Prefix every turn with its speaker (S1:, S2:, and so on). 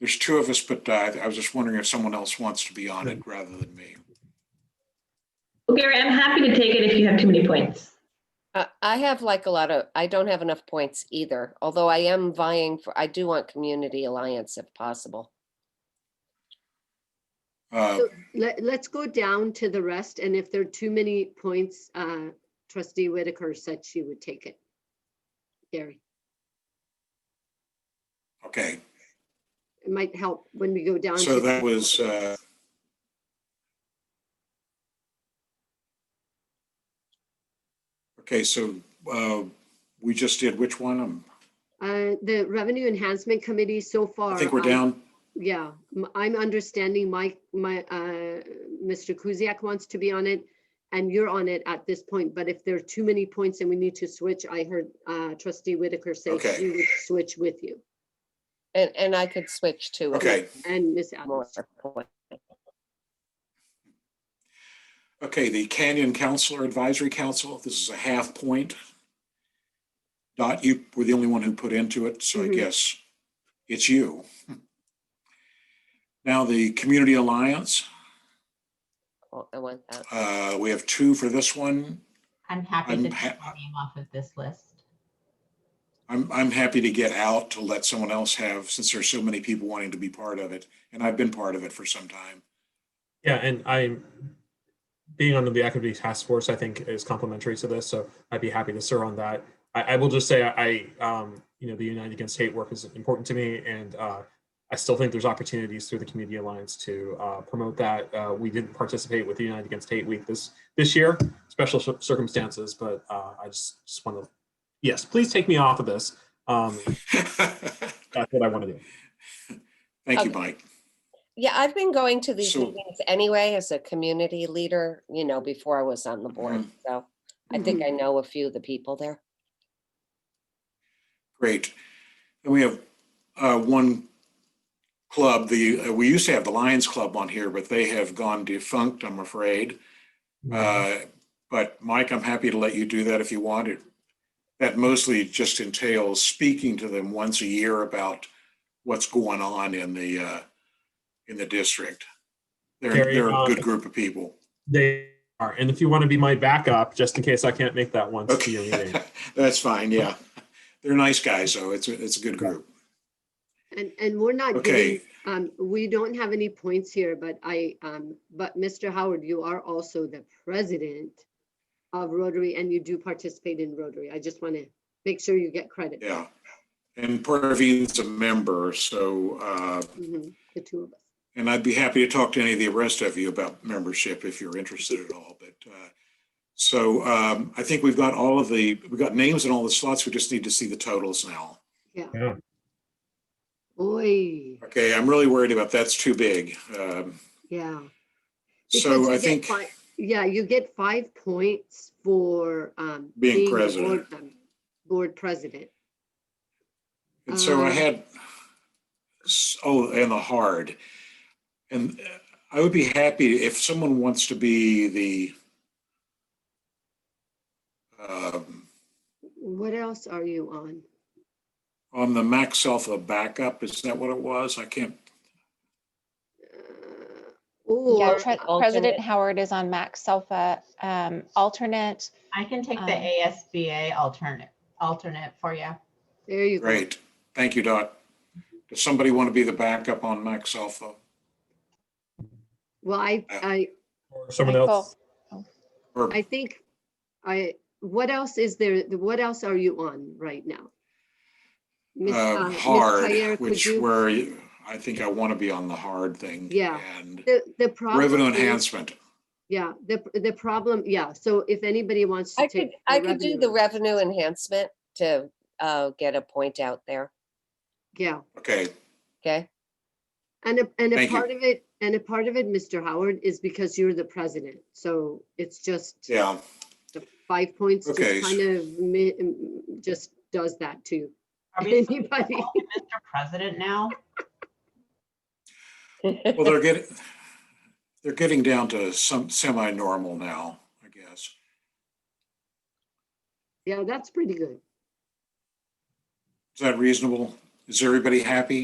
S1: There's two of us, but uh, I was just wondering if someone else wants to be on it rather than me.
S2: Well, Gary, I'm happy to take it if you have too many points.
S3: Uh, I have like a lot of, I don't have enough points either, although I am vying for, I do want Community Alliance if possible.
S1: Uh,
S4: So Let, let's go down to the rest, and if there are too many points, uh, trustee Whitaker said she would take it. Gary,
S1: Okay,
S4: it might help when we go down.
S1: so
S4: to-
S1: that was, uh, okay, so uh, we just did which one? Um,
S4: Uh, the Revenue Enhancement Committee so far.
S1: I think we're
S4: uh,
S1: down.
S4: Yeah, m- I'm understanding Mike, my, uh, Mr. Kuziak wants to be on it, and you're on it at this point, but if there are too many points and we need to switch, I heard uh, trustee Whitaker say
S1: Okay.
S4: she would switch with you
S3: And, and I could switch to.
S1: Okay,
S4: and Miss Adams.
S3: More point.
S1: okay, the Canyon Counselor Advisory Council, this is a half point. Dot, you were the only one who put into it, so I
S4: Mhm.
S1: guess it's you. Now, the Community Alliance,
S3: Oh, I want that.
S1: uh, we have two for this one.
S5: I'm happy
S1: I'm
S5: to
S1: ha-
S5: take my name off of this list.
S1: I'm, I'm happy to get out to let someone else have, since there's so many people wanting to be part of it, and I've been part of it for some time.
S6: Yeah, and I'm being on the equity task force, I think is complementary to this, so I'd be happy to serve on that. I, I will just say I, I, um, you know, the United Against Hate work is important to me and, uh, I still think there's opportunities through the Community Alliance to, uh, promote that. Uh, we didn't participate with the United Against Hate Week this, this year, special cir- circumstances, but, uh, I just, just want to, yes, please take me off of this. Um,
S1: Thank
S6: that's what I want to do.
S1: you,
S3: Okay.
S1: Mike.
S3: Yeah, I've been going to these
S1: So-
S3: meetings anyway as a community leader, you know, before I was on the board.
S1: Mm-hmm.
S3: So I think I
S4: Mm-hmm.
S3: know a few of the people there.
S1: Great. And we have uh, one club, the, uh, we used to have the Lions Club on here, but they have gone defunct, I'm afraid. Uh, But Mike, I'm happy to let you do that if you want it. That mostly just entails speaking to them once a year about what's going on in the, uh, in the district. They're,
S6: Gary,
S1: they're a
S6: um,
S1: good group of people.
S6: They are, and if you want to be my backup, just in case I can't make that one to your meeting.
S1: Okay, that's fine, yeah. They're nice guys, though. It's, a- it's a good group.
S4: And, and we're not
S1: Okay.
S4: getting, um, we don't have any points here, but I, um, but Mr. Howard, you are also the president of Rotary and you do participate in Rotary. I just want to make sure you get credit.
S1: Yeah. And Parvine's a member, so, uh,
S4: Mhm, The two of us.
S1: and I'd be happy to talk to any of the rest of you about membership if you're interested at all, but, uh, so, um, I think we've got all of the, we've got names in all the slots. We just need to see the totals now.
S4: Oy,
S1: Okay, I'm really worried about that's too big. Um,
S4: yeah. Because
S1: so
S4: you
S1: I
S4: get
S1: think,
S4: fi- Yeah, you get five points for, um.
S1: Being
S4: a
S1: president.
S4: board mem- Board president.
S1: and so I
S4: um,
S1: had, s- oh, and the hard. And uh, I would be happy if someone wants to be the, um,
S4: What else are you on?
S1: on the max alpha backup, is that what it was? I can't,
S4: Uh,
S7: Yeah,
S4: Or,
S7: Tre-
S3: alternate.
S7: President Howard is on Max Alpha um, alternate.
S5: I can take the
S7: Um,
S5: ASBA alternate, alternate for you.
S4: there you go.
S1: great. Thank you, Dot. Does somebody want to be the backup on max alpha?
S4: Well, I,
S1: Uh,
S4: I,
S6: Or Someone
S7: Michael.
S6: else.
S1: Or,
S4: I think I, what else is there, what else are you on right now? Miss, uh,
S1: uh,
S4: Miss Tyre,
S1: hard,
S4: could
S1: which
S4: you-
S1: where you- I think I want to be on the hard thing.
S4: Yeah.
S1: And
S4: The, the problem.
S1: revenue
S4: is-
S1: enhancement.
S4: Yeah, the, the problem, yeah, so if anybody wants to
S3: I
S4: take.
S3: could,
S4: the
S3: I could do the
S4: revenue-
S3: revenue enhancement to uh, get a point out there.
S4: Yeah,
S1: Okay,
S3: Okay,
S4: and a, and a
S1: Thank you.
S4: part of it, and a part of it, Mr. Howard, is because you're the president, so it's just.
S1: yeah,
S4: The five points just
S1: Okay.
S4: kind of, mi- mm, just does that to
S5: Are we supposed to
S4: anybody.
S5: call you Mr. President now?
S1: well, they're getting, they're getting down to some semi-normal now, I guess.
S4: Yeah, that's pretty good.
S1: Is that reasonable? Is everybody happy?